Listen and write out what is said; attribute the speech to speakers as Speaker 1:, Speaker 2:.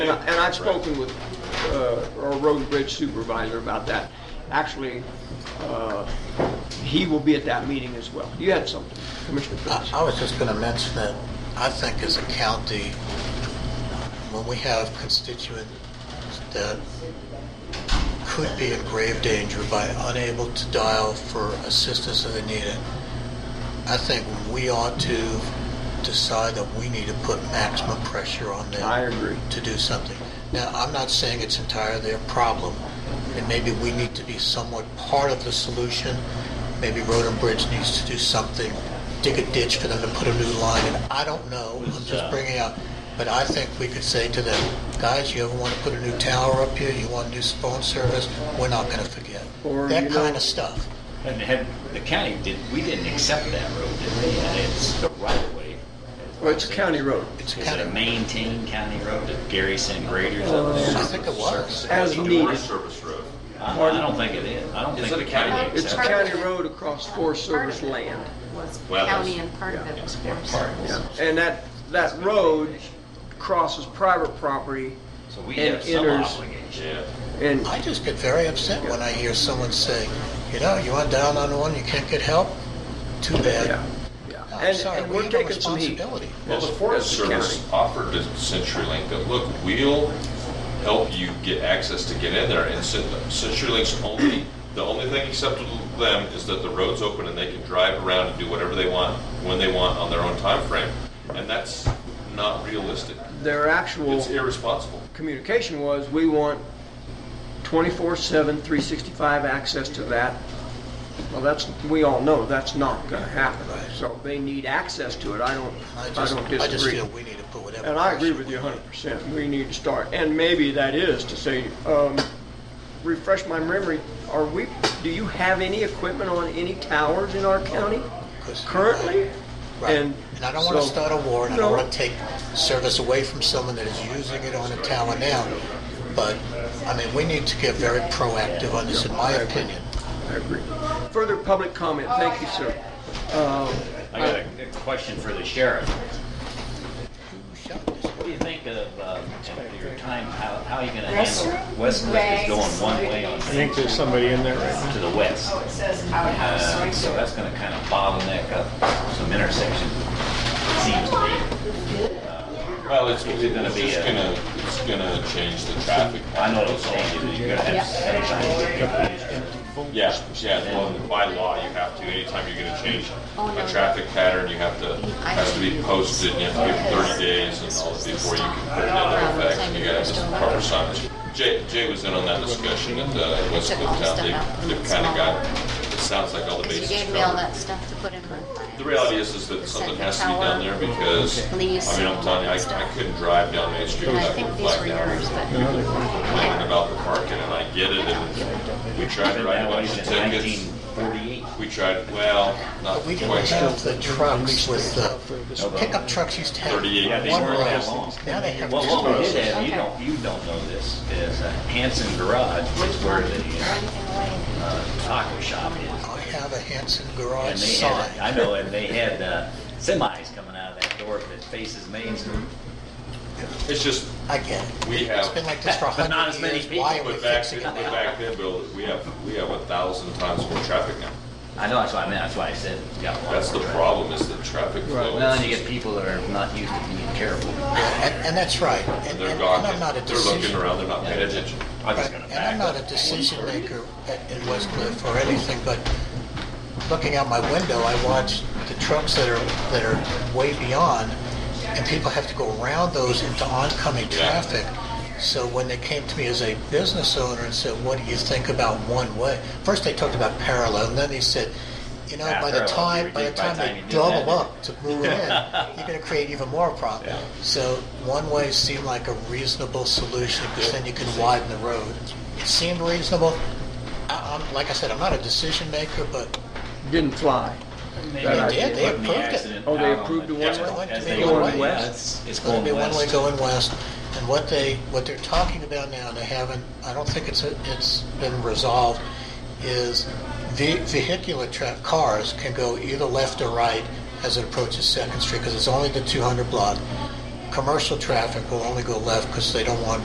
Speaker 1: And I- and I've spoken with uh, our road and bridge supervisor about that. Actually, uh, he will be at that meeting as well. You had something, Commissioner
Speaker 2: I
Speaker 1: Fitz?
Speaker 2: I was just going to mention that I think as a county, when we have constituents that could be in grave danger by unable to dial for assistance if they need it, I think we ought to decide that we need to put maximum pressure on them.
Speaker 1: I agree.
Speaker 2: To do something. Now, I'm not saying it's entirely their problem, and maybe we need to be somewhat part of the solution. Maybe Road and Bridge needs to do something, dig a ditch for them to put a new line in. I don't know, I'm just bringing up, but I think we could say to them, guys, you ever want to put a new tower up here, you want new phone service, we're not going to forget.
Speaker 1: Or, you
Speaker 2: That
Speaker 1: know-
Speaker 2: kind of stuff.
Speaker 3: And had, the county did, we didn't accept that road, did we? And it's the right of way.
Speaker 1: Well, it's a county road.
Speaker 2: It's
Speaker 3: Is
Speaker 2: kind
Speaker 3: it a
Speaker 2: of,
Speaker 3: maintained county road that Gary sent graders
Speaker 1: Oh,
Speaker 3: up
Speaker 2: I
Speaker 3: there?
Speaker 2: think it was.
Speaker 1: As
Speaker 4: Door
Speaker 1: needed.
Speaker 4: service road.
Speaker 3: I I don't think it is. I don't
Speaker 4: Is
Speaker 3: think.
Speaker 4: it a
Speaker 3: the
Speaker 4: county road?
Speaker 1: It's a
Speaker 3: accepted it.
Speaker 1: county road across Forest Service land.
Speaker 5: was
Speaker 4: Well, that's-
Speaker 5: county and part of it was
Speaker 3: Yeah,
Speaker 5: forest.
Speaker 3: part.
Speaker 1: Yeah. And that, that road crosses private property
Speaker 3: So we
Speaker 1: and
Speaker 3: have some
Speaker 1: enters,
Speaker 3: obligation.
Speaker 4: Yeah.
Speaker 1: and
Speaker 2: I just get very upset when I hear someone say, you know, you went down on one, you can't get help? Too
Speaker 1: Yeah,
Speaker 2: bad.
Speaker 1: yeah.
Speaker 2: I'm
Speaker 1: And-
Speaker 2: sorry,
Speaker 1: and
Speaker 2: we
Speaker 1: we're
Speaker 2: have a
Speaker 1: taking some heat.
Speaker 2: responsibility.
Speaker 4: Well, the
Speaker 1: Yes,
Speaker 4: Forest
Speaker 1: yes, the
Speaker 4: Service offered to CenturyLink that, look, we'll help you get access to get in there, and Cent- CenturyLink's only, the only thing acceptable to them is that the road's open and they can drive around and do whatever they want, when they want, on their own time frame, and that's not realistic.
Speaker 1: Their actual
Speaker 4: It's irresponsible.
Speaker 1: communication was, we want 24/7, 365 access to that. Well, that's, we all know, that's not gonna happen.
Speaker 2: Right.
Speaker 1: So they need access to it. I don't,
Speaker 2: I
Speaker 1: I
Speaker 2: just,
Speaker 1: don't
Speaker 2: I just
Speaker 1: disagree.
Speaker 2: feel we need to put whatever.
Speaker 1: And I agree
Speaker 2: pressure
Speaker 1: with
Speaker 2: we
Speaker 1: you
Speaker 2: can.
Speaker 1: 100%. We need to start, and maybe that is to say, um, refresh my memory, are we, do you have any equipment on any towers in our county
Speaker 2: 'Cause-
Speaker 1: currently?
Speaker 2: Right.
Speaker 1: And
Speaker 2: And I don't want to
Speaker 1: so-
Speaker 2: start a war, and I don't
Speaker 1: No.
Speaker 2: want to take service away from someone that is using it on a tower now. But, I mean, we need to get very proactive on this, in my opinion.
Speaker 1: I agree. Further public comment, thank you, sir. Um,
Speaker 3: I got a a question for the sheriff.
Speaker 2: Who shot this?
Speaker 3: What do you think of, uh, your time, how, how are you gonna
Speaker 6: Restaurant?
Speaker 3: handle Westcliff is going one way on,
Speaker 7: I think there's somebody in there right
Speaker 3: to the west?
Speaker 6: It says
Speaker 3: Uh,
Speaker 6: outhouse
Speaker 3: So
Speaker 6: right
Speaker 3: that's gonna kind of bottleneck up some intersections, it seems to me.
Speaker 4: Well, it's, it's
Speaker 3: gonna be
Speaker 4: just
Speaker 3: a-
Speaker 4: gonna, it's gonna change the traffic.
Speaker 3: I know it's changing, you're gonna have sometimes.
Speaker 4: Yeah, yeah, well, by law, you have to, anytime you're gonna change
Speaker 5: Oh, no.
Speaker 4: a traffic pattern, you have to, has to be posted, you have to give it thirty days and all, before you can put it into effect, and you gotta have this proper signage. Jay, Jay was in on that discussion at the West Cliff Town, they, they've kinda got, it sounds like all the
Speaker 5: Because you
Speaker 4: bases
Speaker 5: gave me all
Speaker 4: covered.
Speaker 5: that stuff to put in my files.
Speaker 4: The reality is, is that something has to be done there, because, I mean, I'm telling you, I, I couldn't drive down Main Street
Speaker 5: And I
Speaker 4: without
Speaker 5: think
Speaker 4: getting
Speaker 5: these were
Speaker 4: flagged down.
Speaker 5: yours, but.
Speaker 4: Complaining about the parking, and I get it, and we tried to
Speaker 3: Been
Speaker 4: write a
Speaker 3: that way
Speaker 4: bunch of
Speaker 3: since
Speaker 4: tickets.
Speaker 3: 1948.
Speaker 4: We tried, well, not
Speaker 2: But we
Speaker 4: quite.
Speaker 2: didn't have the trucks with the pickup trucks used to have
Speaker 4: 38 feet
Speaker 2: one
Speaker 4: or
Speaker 2: row.
Speaker 3: that long.
Speaker 2: Now they have two
Speaker 3: Well, what we
Speaker 2: rows.
Speaker 3: did have, you don't, you don't know this, is uh, Hanson Garage is where the uh, uh, taco shop is.
Speaker 2: I have a Hanson
Speaker 3: And
Speaker 2: garage
Speaker 3: they had, I
Speaker 2: sign.
Speaker 3: know, and they had uh, semis coming out of that door that faces Main Street.
Speaker 4: It's just,
Speaker 2: I get it.
Speaker 4: We
Speaker 2: It's
Speaker 4: have-
Speaker 2: been like this for a
Speaker 3: But not as
Speaker 2: hundred
Speaker 3: many
Speaker 2: years. Why are we
Speaker 4: but back
Speaker 2: fixing
Speaker 4: then,
Speaker 2: it
Speaker 4: but
Speaker 2: now?
Speaker 4: back then, Bill, we have, we have a thousand times more traffic now.
Speaker 3: I know, that's what I meant, that's why I said, yeah.
Speaker 4: That's the problem, is the traffic flow.
Speaker 3: Well, and you get people that are not used to being careful.
Speaker 2: And, and that's right.
Speaker 4: And
Speaker 2: And,
Speaker 4: they're
Speaker 2: and
Speaker 4: gawking,
Speaker 2: and I'm not a
Speaker 4: they're looking
Speaker 2: decision.
Speaker 4: around, they're not paying attention.
Speaker 3: I'm just
Speaker 2: Right,
Speaker 3: gonna
Speaker 2: And
Speaker 3: back
Speaker 2: I'm not
Speaker 3: up.
Speaker 2: a decision maker at- in West Cliff or anything, but looking out my window, I watch the trucks that are, that are way beyond, and people have to go around those into oncoming
Speaker 4: Yeah.
Speaker 2: traffic. So when they came to me as a business owner and said, what do you think about one way? First they talked about parallel, and then they said, you know,
Speaker 3: Yeah,
Speaker 2: by the
Speaker 3: parallel,
Speaker 2: time,
Speaker 3: you
Speaker 2: by the
Speaker 3: reduce by
Speaker 2: time
Speaker 3: the time
Speaker 2: they
Speaker 3: you do
Speaker 2: double
Speaker 3: that.
Speaker 2: up to move in, you're gonna create even more problem. So one way seemed like a reasonable solution, because then you can widen the road. It seemed reasonable. I, I'm, like I said, I'm not a decision maker, but
Speaker 1: Didn't fly.
Speaker 3: They
Speaker 1: That
Speaker 3: did,
Speaker 1: idea.
Speaker 3: they
Speaker 2: They
Speaker 3: put the
Speaker 2: approved it.
Speaker 3: accident
Speaker 1: Oh, they
Speaker 3: out on
Speaker 1: approved the
Speaker 3: the-
Speaker 1: one-way?
Speaker 3: as- as they
Speaker 2: It's going
Speaker 3: go in,
Speaker 2: west.
Speaker 3: yeah, It's it's
Speaker 2: it's gonna
Speaker 3: going
Speaker 2: be one way
Speaker 3: west.
Speaker 2: going west. And what they, what they're talking about now, and they haven't, I don't think it's, it's been resolved, is ve- vehicular tra- cars can go either left or right as it approaches Second Street, because it's only the 200 block. commercial traffic will only go left because they don't want